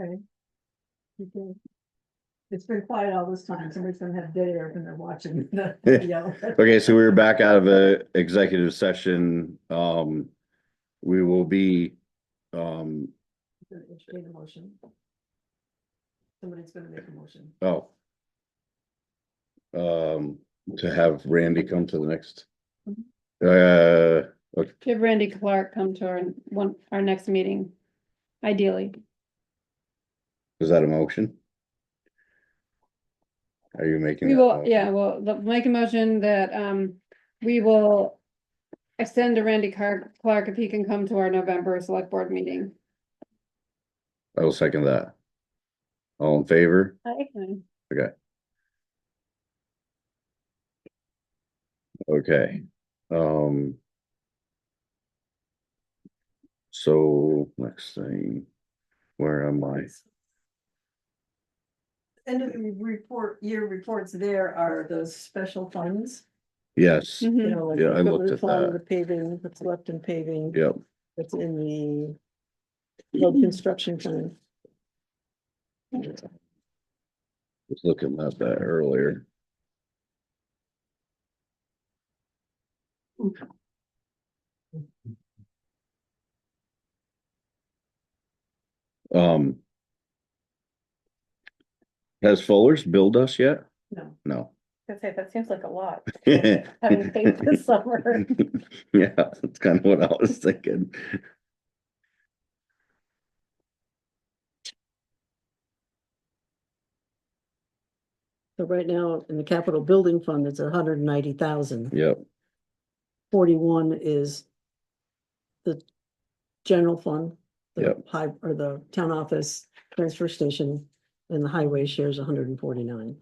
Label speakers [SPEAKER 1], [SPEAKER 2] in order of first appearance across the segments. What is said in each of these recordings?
[SPEAKER 1] Okay. You can- It's been quiet all this time, somebody's gonna have dead air when they're watching the video.
[SPEAKER 2] Okay, so we were back out of a executive session. Um, we will be, um,
[SPEAKER 1] Entertain a motion. Somebody's gonna make a motion.
[SPEAKER 2] oh. Um, to have Randy come to the next.
[SPEAKER 3] Mm-hmm.
[SPEAKER 2] Uh,
[SPEAKER 3] To have Randy Clark come to our one, our next meeting, ideally.
[SPEAKER 2] is that a motion? Are you making?
[SPEAKER 3] We
[SPEAKER 2] that
[SPEAKER 3] will,
[SPEAKER 2] motion?
[SPEAKER 3] yeah, well, the- make a motion that um, we will. Extend to Randy Car- Clark if he can come to our November select board meeting.
[SPEAKER 2] I will second that. All in favor? Okay, um. So next thing, where am I?
[SPEAKER 1] End of the report, year reports there are those special funds,
[SPEAKER 2] Yes,
[SPEAKER 1] you
[SPEAKER 4] Hmm.
[SPEAKER 3] Mhm.
[SPEAKER 1] know, like.
[SPEAKER 2] Yeah, I
[SPEAKER 1] the
[SPEAKER 2] looked at
[SPEAKER 1] roof line,
[SPEAKER 2] that.
[SPEAKER 1] The paving, what's left in paving,
[SPEAKER 2] yep.
[SPEAKER 1] what's in the road construction fund.
[SPEAKER 2] Was looking at that earlier. Um. Has Fuller's billed us yet?
[SPEAKER 1] No.
[SPEAKER 2] No.
[SPEAKER 5] I'd say that seems like a lot,
[SPEAKER 2] Yeah,
[SPEAKER 5] having paid this summer.
[SPEAKER 2] that's kind of what I was thinking.
[SPEAKER 4] So right now, in the capital building fund, it's a hundred and ninety thousand.
[SPEAKER 2] Yep,
[SPEAKER 4] Forty-one is the general fund. the
[SPEAKER 2] Yep.
[SPEAKER 4] High, or the town office, transfer station, and the highway shares hundred and forty-nine.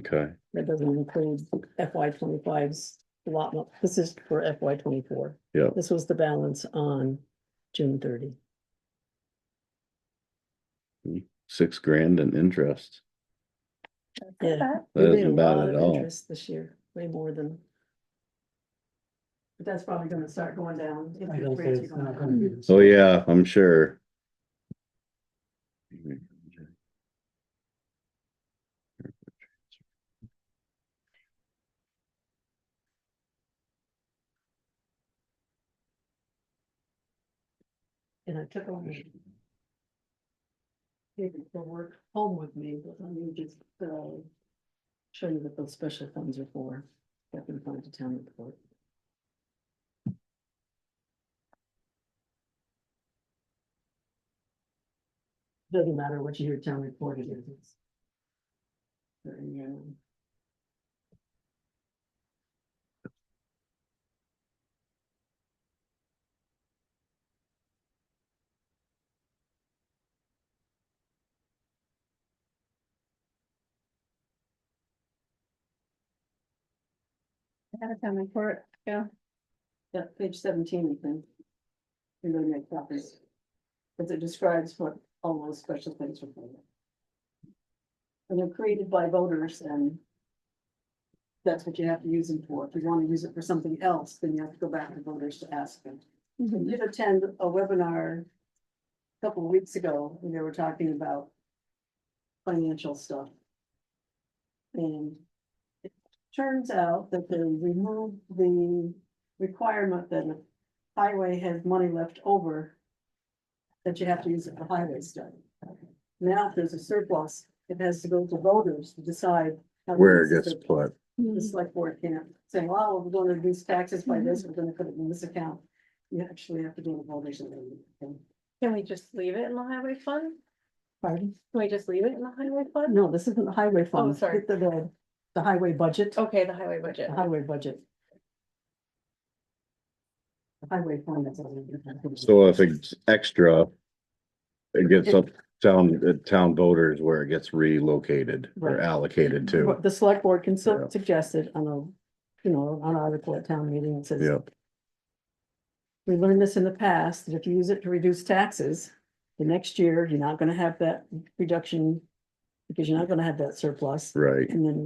[SPEAKER 2] okay,
[SPEAKER 4] That doesn't include FY 25s allotment. This is for FY twenty-four.
[SPEAKER 2] Yep.
[SPEAKER 4] This was the balance on June thirty.
[SPEAKER 2] six grand in interest.
[SPEAKER 4] Yeah.
[SPEAKER 2] That
[SPEAKER 4] We made a
[SPEAKER 2] isn't bad
[SPEAKER 4] lot
[SPEAKER 2] at
[SPEAKER 4] of
[SPEAKER 2] all.
[SPEAKER 4] interest This year, way more than.
[SPEAKER 1] But that's probably gonna start going down. if
[SPEAKER 6] I
[SPEAKER 1] the
[SPEAKER 6] don't
[SPEAKER 1] rates
[SPEAKER 6] think it's
[SPEAKER 1] are going
[SPEAKER 6] not
[SPEAKER 1] up.
[SPEAKER 6] gonna be the
[SPEAKER 2] Oh,
[SPEAKER 6] same.
[SPEAKER 2] yeah, I'm sure.
[SPEAKER 1] And I took on. Taking the work home with me, but let me just, uh. Show you what those special funds are for, that we find a town report. Doesn't matter what your town report it is. They're in your own.
[SPEAKER 3] Out of town report, yeah.
[SPEAKER 1] Yeah, page seventeen, I think. You're gonna make copies. Because it describes what all those special things are for. And they're created by voters and. That's what you have to use them for. If you want to use it for something else, then you have to go back to voters to ask them. I
[SPEAKER 3] Mhm.
[SPEAKER 1] did attend a webinar. a Couple of weeks ago, and they were talking about. Financial stuff. And. it Turns out that they removed the requirement that if highway has money left over. That you have to use it for highway study. Now, if there's a surplus, it has to go to voters to decide. how to
[SPEAKER 2] Where it
[SPEAKER 1] use the
[SPEAKER 2] gets put.
[SPEAKER 1] the select board can't say, well, we're gonna reduce taxes by this, we're gonna put it in this account. You actually have to do a voters and.
[SPEAKER 5] Can we just leave it in the highway fund?
[SPEAKER 1] Pardon?
[SPEAKER 5] Can we just leave it in the highway fund?
[SPEAKER 1] No, this isn't the highway fund.
[SPEAKER 5] sorry.
[SPEAKER 1] It's The, the, the highway budget,
[SPEAKER 3] Mm-hmm. Oh,
[SPEAKER 5] Okay, the highway budget.
[SPEAKER 1] the highway budget. The Highway fund. that's all we're gonna have.
[SPEAKER 2] So if it's extra. It gets up town, uh, town voters where it gets relocated or
[SPEAKER 1] Right.
[SPEAKER 2] allocated to.
[SPEAKER 4] But The select board can
[SPEAKER 2] Yeah.
[SPEAKER 4] su- suggest it on a, you know, on article at town meeting and says.
[SPEAKER 2] Yep,
[SPEAKER 4] We learned this in the past, that if you use it to reduce taxes, the next year, you're not gonna have that reduction. Because you're not gonna have that surplus,
[SPEAKER 2] right.
[SPEAKER 4] and then